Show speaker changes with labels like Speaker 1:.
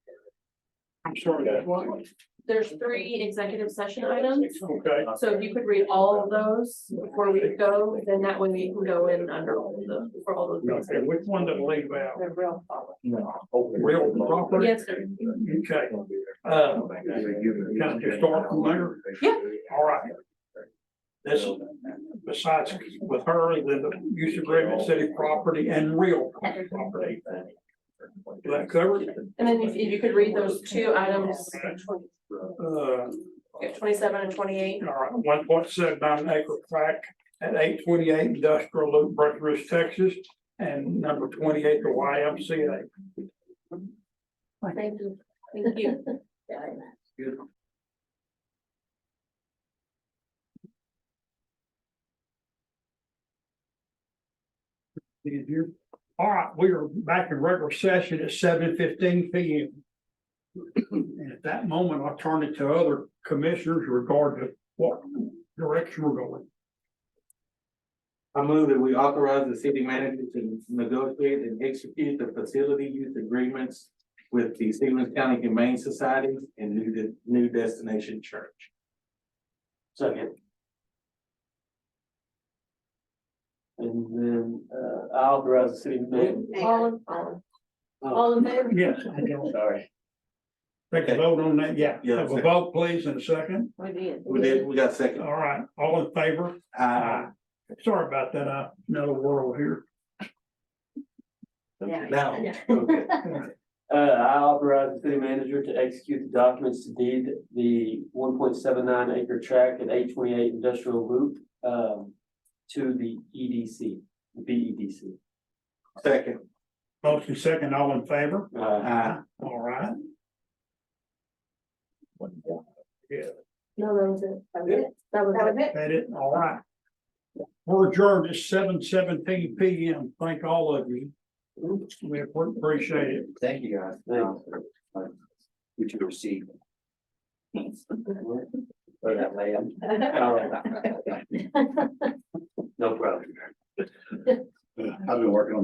Speaker 1: Sure, that's one.
Speaker 2: There's three executive session items,
Speaker 1: Okay,
Speaker 2: so if you could read all of those before we go, then that way we can go in under all of the, for all those. things.
Speaker 1: okay, which one did I leave out?
Speaker 2: They're real follow.
Speaker 1: Real property?
Speaker 2: Yes, sir.
Speaker 1: Okay, uh, kind of historical matter?
Speaker 2: Yeah.
Speaker 1: All right. This, besides with her, the use agreement, city property and real property. Is that covered?
Speaker 2: And then if if you could read those two items,
Speaker 1: Uh,
Speaker 2: twenty-seven and twenty-eight,
Speaker 1: All right, one point seven nine acre tract at eight twenty-eight Industrial Loop, Breckenridge, Texas, and number twenty-eight, the YMCA.
Speaker 2: thank you, thank you.
Speaker 1: Did you- All right, we are back in regular session at seven fifteen P M. And at that moment, I'll turn it to other commissioners regarding what direction we're going.
Speaker 3: I move that we authorize the city manager to negotiate and execute the facility use agreements with the Stevens County Humane Society and New, De- New Destination Church. Second. And then, uh, I authorize the city manager.
Speaker 2: All in, all in- all in favor?
Speaker 1: Yes, I don't
Speaker 3: Sorry.
Speaker 1: take a vote on that, yeah.
Speaker 3: Yeah,
Speaker 1: Have a
Speaker 3: second.
Speaker 1: vote, please, in a second.
Speaker 2: We did.
Speaker 3: We did, we got second.
Speaker 1: All right, all in favor?
Speaker 3: Aye.
Speaker 1: Aye. Sorry about that, uh, another world here.
Speaker 4: Yeah.
Speaker 3: Now,
Speaker 2: Yeah.
Speaker 3: okay.
Speaker 4: Uh, I authorize the city manager to execute the documents to deed the one point seven nine acre tract at eight twenty-eight industrial loop, um, to the EDC, the E BEDC.
Speaker 3: Second.
Speaker 1: Motion second, all in favor?
Speaker 4: Uh,
Speaker 3: Aye.
Speaker 1: All right,
Speaker 2: No, that was it. That was it. That
Speaker 4: That
Speaker 2: was it.
Speaker 1: that it, all right. We're adjourned at seven seventeen P M. Thank all of you. We appreciate it.
Speaker 5: Thank you, guys.
Speaker 4: Thanks.
Speaker 5: Um, You two received. Or that layout.
Speaker 4: all right.